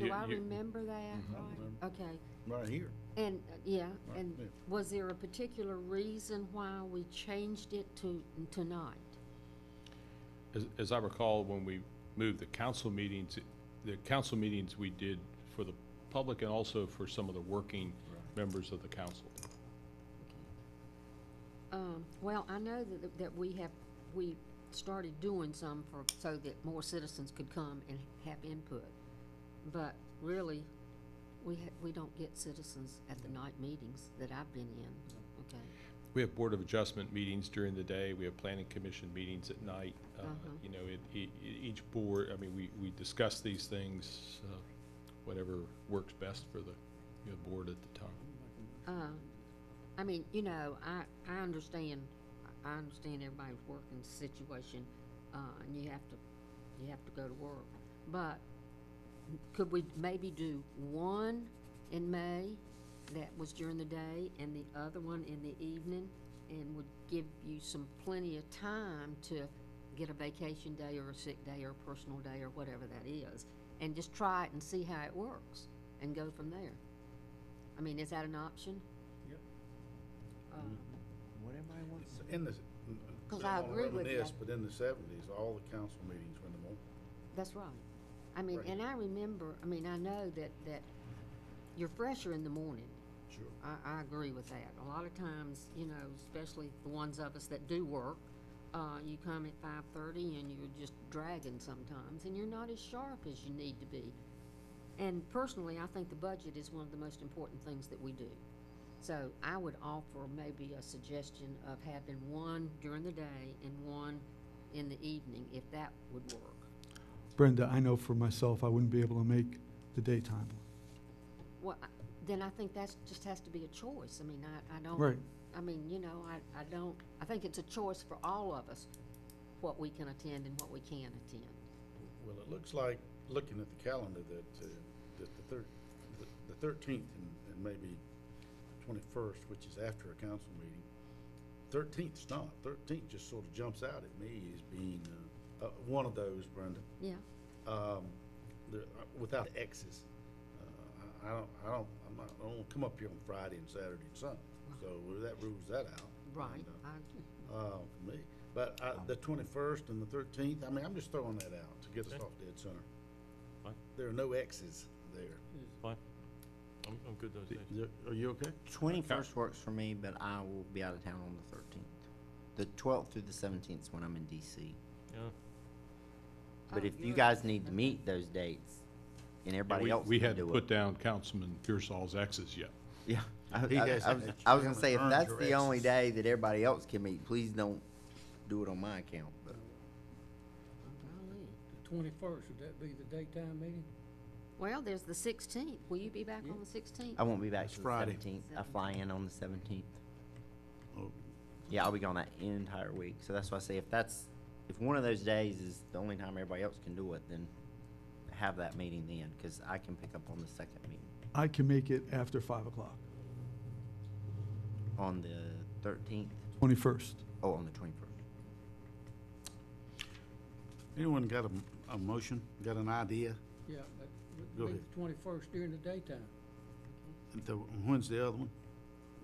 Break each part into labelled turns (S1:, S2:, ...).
S1: you-
S2: Do I
S1: you-
S2: remember that?
S1: I remember.
S2: Okay,
S1: Right here.
S2: and, uh, yeah,
S1: Right,
S2: and
S1: yeah.
S2: was there a particular reason why we changed it to tonight?
S1: As, as I recall, when we moved the council meetings, the council meetings we did for the public and also for some of the working members of the council.
S2: Um, well, I know that, that we have, we started doing some for, so that more citizens could come and have input. But really, we ha- we don't get citizens at the night meetings that I've been in, okay?
S1: We have Board of Adjustment meetings during the day, we have Planning Commission meetings at night. Uh, You know, it, e- e- each board, I mean, we, we discuss these things, uh, whatever works best for the, you know, board at the time.
S2: Um, I mean, you know, I, I understand, I- I understand everybody's working situation, uh, and you have to, you have to go to work. But could we maybe do one in May that was during the day and the other one in the evening? And would give you some plenty of time to get a vacation day or a sick day or a personal day or whatever that is. And just try it and see how it works and go from there. I mean, is that an option?
S3: Yep.
S2: Uh,
S3: It's In the.
S2: 'Cause I agree with you.
S3: Yes, but in the seventies, all the council meetings were in the morning.
S2: That's right. I mean,
S3: Right.
S2: and I remember, I mean, I know that, that you're fresher in the morning.
S3: Sure.
S2: I, I agree with that. A lot of times, you know, especially the ones of us that do work, uh, you come at five thirty and you're just dragging sometimes, and you're not as sharp as you need to be. And personally, I think the budget is one of the most important things that we do. So I would offer maybe a suggestion of having one during the day and one in the evening, if that would work.
S4: Brenda, I know for myself, I wouldn't be able to make the daytime.
S2: Well, I- then I think that's, just has to be a choice. I mean, I, I don't.
S4: Right.
S2: I mean, you know, I, I don't, I think it's a choice for all of us, what we can attend and what we can't attend.
S3: Well, it looks like, looking at the calendar, that, uh, that the thir- the- the thirteenth and, and maybe twenty-first, which is after a council meeting. Thirteenth's not, thirteenth just sort of jumps out at me as being, uh, uh, one of those, Brenda.
S2: Yeah,
S3: um, the- without X's. Uh, I I don't, I don't, I'm not, I don't come up here on Friday and Saturday and Sunday, so that rules that out.
S2: right.
S3: And,
S2: I-
S3: uh, Uh, for me, but I, the twenty-first and the thirteenth, I mean, I'm just throwing that out to get us
S5: Okay.
S3: off dead center.
S5: Fine.
S3: There are no X's there.
S5: Fine. I'm, I'm good those days.
S3: Are you okay?
S6: Twenty-first works for me, but I will be out of town on the thirteenth. The twelfth through the seventeenth is when I'm in DC.
S5: Yeah.
S6: But
S2: Oh,
S6: if you
S2: you're-
S6: guys need to meet those dates, and everybody
S1: We-
S6: else
S1: We
S6: can
S1: hadn't
S6: do
S1: put
S6: it.
S1: down Councilman Pearsall's X's yet.
S6: Yeah, I,
S3: He
S6: I-
S3: has-
S6: I was, I was
S3: you
S6: gonna say, if
S3: haven't
S6: that's
S3: earned
S6: the
S3: your
S6: only
S3: Xs.
S6: day that everybody else can meet, please don't do it on my account, but
S2: golly.
S7: The twenty-first, would that be the daytime meeting?
S2: Well, there's the sixteenth. Will you be back on the sixteenth?
S6: I won't be back
S3: That's
S6: till the
S3: Friday.
S6: seventeenth. I fly in on the seventeenth.
S3: Oh.
S6: Yeah, I'll be gone that entire week, so that's why I say if that's, if one of those days is the only time everybody else can do it, then have that meeting then, cause I can pick up on the second meeting.
S4: I can make it after five o'clock,
S6: On the thirteenth,
S4: twenty-first.
S6: oh, on the twenty-first.
S3: Anyone got a, a motion, got an idea?
S7: Yeah, that
S3: Go
S7: would be
S3: ahead.
S7: the twenty-first during the daytime.
S3: The- When's the other one,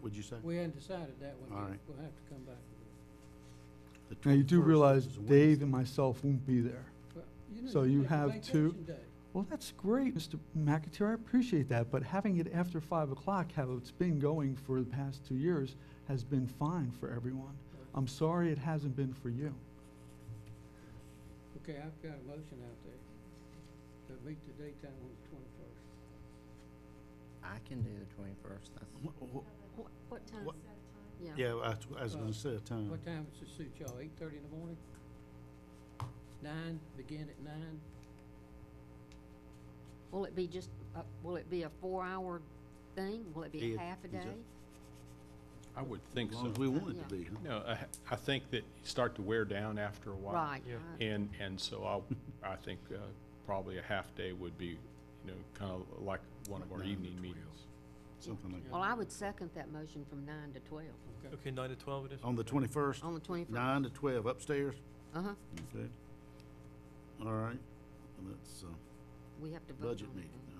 S3: would you say?
S7: We hadn't decided that one
S3: All
S7: yet.
S3: right.
S7: We'll have to come back. with
S3: The
S4: Now, you
S3: 21st,
S4: do
S3: which
S4: realize
S3: is a
S4: Dave and myself won't be there.
S7: it. Well, know,
S4: So you
S7: take a
S4: have two-
S7: vacation day.
S4: Well, that's great, Mr. McAteer, I appreciate that, but having it after five o'clock, how it's been going for the past two years, has been fine for everyone. I'm sorry it hasn't been for you.
S7: Okay, I've got a motion out there to meet the daytime on the twenty-first.
S6: I can do the twenty-first, that's.
S3: Wednesday. Wh- wh-
S2: What, what time?
S3: What-
S2: Yeah,
S3: Yeah, I, I was gonna say a time.
S7: What time does it suit y'all? Eight-thirty in the morning? Nine, begin at nine?
S2: will it be just, uh, will it be a four-hour thing? Will it be
S3: Yeah,
S2: half a
S3: is that-
S2: day?
S1: I would think
S3: As
S1: so.
S3: long as we want it
S2: Yeah.
S3: to be, huh?
S1: No, I, I think that you start to wear down after a while.
S2: Right.
S5: Yeah.
S2: I-
S1: And, and so I'll, I think uh, probably a half day would be, you know, kind of like one of our
S3: Nine to
S1: evening
S3: 12.
S1: meetings.
S3: Something like
S2: Well, I would second that motion from nine to twelve,
S7: Okay.
S5: Okay, nine to twelve it is?
S3: On the twenty-first,
S2: on the twenty-first.
S3: nine to twelve upstairs?
S2: Uh-huh,
S3: Okay. All right, that's, uh,
S2: we have to vote on it.
S3: budget meeting.